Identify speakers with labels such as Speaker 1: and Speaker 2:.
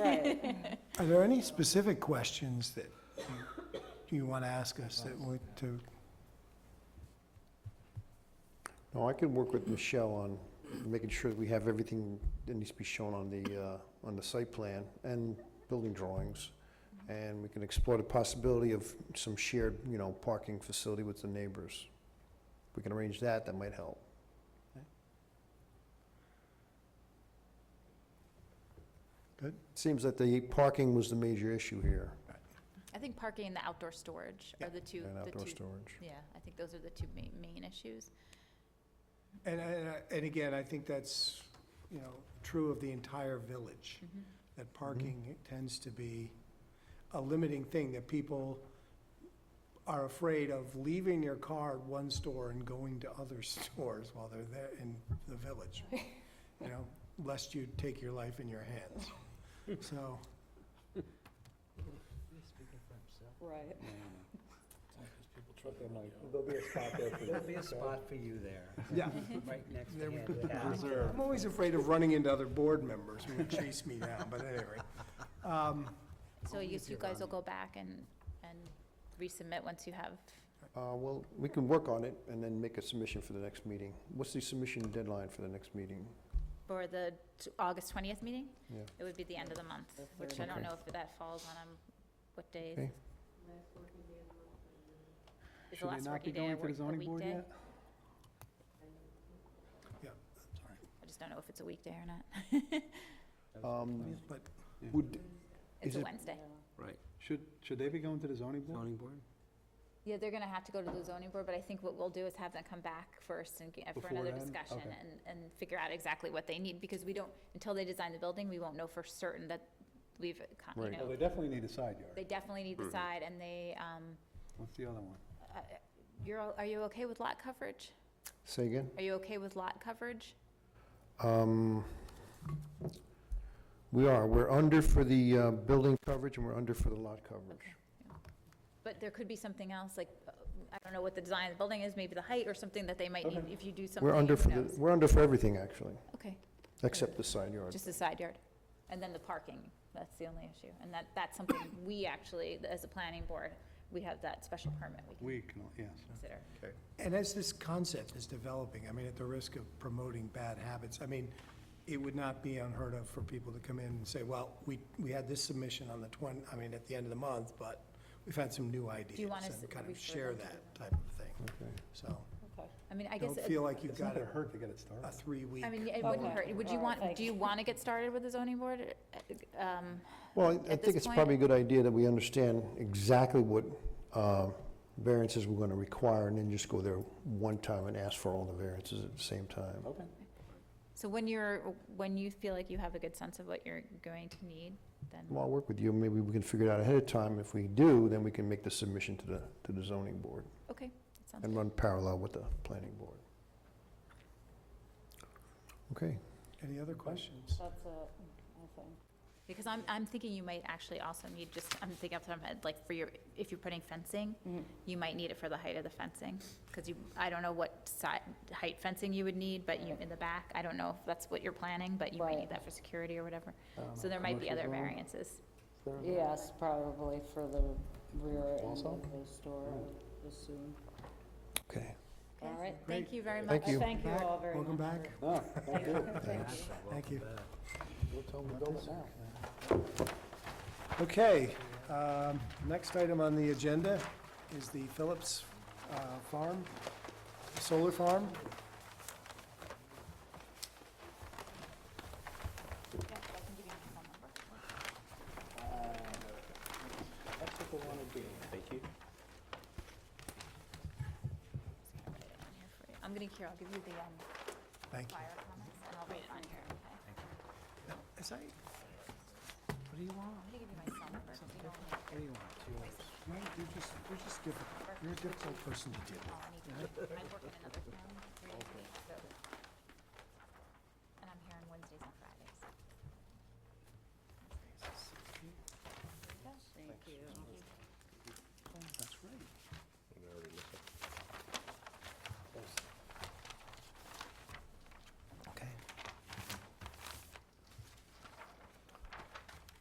Speaker 1: Right.
Speaker 2: Are there any specific questions that you- you want to ask us that would, to,
Speaker 3: No, I can work with Michelle on making sure that we have everything that needs to be shown on the, uh, on the site plan and building drawings. And we can explore the possibility of some shared, you know, parking facility with the neighbors. If we can arrange that, that might help.
Speaker 2: Good.
Speaker 3: Seems that the parking was the major issue here,
Speaker 4: I think parking and the outdoor storage are the two,
Speaker 3: and
Speaker 4: the
Speaker 3: outdoor
Speaker 4: two,
Speaker 3: storage.
Speaker 4: yeah, I think those are the two main, main issues.
Speaker 2: and, and and again, I think that's, you know, true of the entire village,
Speaker 4: Mhm.
Speaker 2: that parking tends to be a limiting thing, that people are afraid of leaving their car at one store and going to other stores while they're there in the village, you know, lest you take your life in your hands. So,
Speaker 1: Right.
Speaker 5: There'll be a spot there for you. There'll be a spot for you there,
Speaker 2: yeah.
Speaker 5: right next to
Speaker 2: There we
Speaker 5: Handed Out.
Speaker 2: I'm always afraid of running into other board members who would chase me down, but anyway. Um,
Speaker 4: So you, you guys will go back and, and resubmit once you have,
Speaker 3: Uh, well, we can work on it and then make a submission for the next meeting. What's the submission deadline for the next meeting?
Speaker 4: for the t- August twentieth meeting?
Speaker 3: Yeah.
Speaker 4: It would be the end of the month,
Speaker 1: The
Speaker 4: which I don't
Speaker 3: Okay.
Speaker 4: know if that falls on, um, what days.
Speaker 3: Okay.
Speaker 4: Is the last working day a work, a weekday?
Speaker 2: Yeah,
Speaker 4: I just don't know if it's a weekday or not.
Speaker 3: Um,
Speaker 2: But
Speaker 3: Would,
Speaker 4: It's
Speaker 3: Is
Speaker 4: a
Speaker 3: it-
Speaker 4: Wednesday.
Speaker 6: Should, should they be going to the zoning board?
Speaker 5: Zoning board?
Speaker 4: Yeah, they're gonna have to go to the zoning board, but I think what we'll do is have them come back first and get, for
Speaker 6: Before
Speaker 4: another
Speaker 6: then?
Speaker 4: discussion
Speaker 6: Okay.
Speaker 4: and, and figure out exactly what they need, because we don't, until they design the building, we won't know for certain that we've, con- you
Speaker 3: Right. Mm-hmm.
Speaker 6: Well,
Speaker 4: know,
Speaker 6: they definitely need a side
Speaker 4: they
Speaker 6: yard.
Speaker 4: definitely need the side, and they, um,
Speaker 6: What's the other one?
Speaker 4: uh, you're, all- are you okay with lot coverage?
Speaker 3: say again?
Speaker 4: Are you okay with lot coverage?
Speaker 3: Um, we are, we're under for the, uh, building coverage and we're under for the lot coverage.
Speaker 4: Okay. yeah. But there could be something else, like, uh, I don't know what the design of the building is, maybe the height or something that they might need, if you do something,
Speaker 3: We're under
Speaker 4: who
Speaker 3: for the,
Speaker 4: knows?
Speaker 3: we're under for everything, actually,
Speaker 4: Okay.
Speaker 3: except the side yard.
Speaker 4: Just the side yard. And then the parking, that's the only issue. And that, that's something we actually, as a planning board, we have that special permit we
Speaker 6: We can, yes.
Speaker 4: can consider.
Speaker 2: And as this concept is developing, I mean, at the risk of promoting bad habits, I mean, it would not be unheard of for people to come in and say, well, we, we had this submission on the twen, I mean, at the end of the month, but we've had some new ideas
Speaker 4: wanna s-
Speaker 2: and kind of
Speaker 4: refer
Speaker 2: share
Speaker 4: them to
Speaker 2: that type of thing.
Speaker 3: Okay.
Speaker 2: So
Speaker 1: Okay.
Speaker 4: I mean, I guess,
Speaker 2: don't
Speaker 4: it-
Speaker 2: feel like you've
Speaker 6: It's
Speaker 2: got
Speaker 6: not
Speaker 2: a,
Speaker 6: gonna hurt to get it started.
Speaker 2: a three-week.
Speaker 4: I mean, it
Speaker 1: Okay.
Speaker 4: wouldn't hurt. Would you
Speaker 1: All right,
Speaker 4: want,
Speaker 1: thanks.
Speaker 4: do you want to get started with the zoning board? Uh, um,
Speaker 3: Well, I- I
Speaker 4: At this
Speaker 3: think it's
Speaker 4: point-
Speaker 3: probably a good idea that we understand exactly what, uh, variances we're gonna require and then just go there one time and ask for all the variances at the same time.
Speaker 5: Okay.
Speaker 4: So when you're, when you feel like you have a good sense of what you're going to need, then,
Speaker 3: Well, I'll work with you, maybe we can figure it out ahead of time. If we do, then we can make the submission to the, to the zoning board
Speaker 4: okay. that sounds
Speaker 3: and
Speaker 4: good.
Speaker 3: run parallel with the planning board. Okay,
Speaker 2: Any other questions?
Speaker 1: That's a, I think.
Speaker 4: Because I'm, I'm thinking you might actually also need just, I'm thinking off the top of my head, like for your, if you're putting fencing,
Speaker 1: Mm-hmm.
Speaker 4: you might need it for the height of the fencing. Because you, I don't know what side, height fencing you would need, but you, in the back, I don't know if that's what you're planning, but you might
Speaker 1: Right.
Speaker 4: need that for security or whatever.
Speaker 5: Um,
Speaker 4: So there might be other
Speaker 5: commercial zone,
Speaker 4: variances.
Speaker 5: is there a-
Speaker 1: Yes, probably for the rear end
Speaker 5: Also?
Speaker 1: of the store, I would assume.
Speaker 3: okay.
Speaker 1: All right.
Speaker 4: Thank you very much.
Speaker 3: Thank you.
Speaker 1: Thank you
Speaker 2: Back.
Speaker 1: all very much.
Speaker 2: Welcome back.
Speaker 5: No, thank you.
Speaker 2: Thank you.
Speaker 3: We'll tell them to go now.
Speaker 2: Okay, um, next item on the agenda is the Phillips uh, Farm, Solar Farm.
Speaker 5: That's what they wanna do. Thank you.
Speaker 4: I'm gonna, here, I'll give you the, um,
Speaker 2: Thank you.
Speaker 4: fire comments and I'll read it on here, okay?
Speaker 2: Is that- What do you want?
Speaker 4: I'm gonna give you my son first, you don't need-
Speaker 2: What do you want? No, you're just, you're just difficult. You're a difficult person to deal
Speaker 4: oh, I need to- I work in another town three days a week.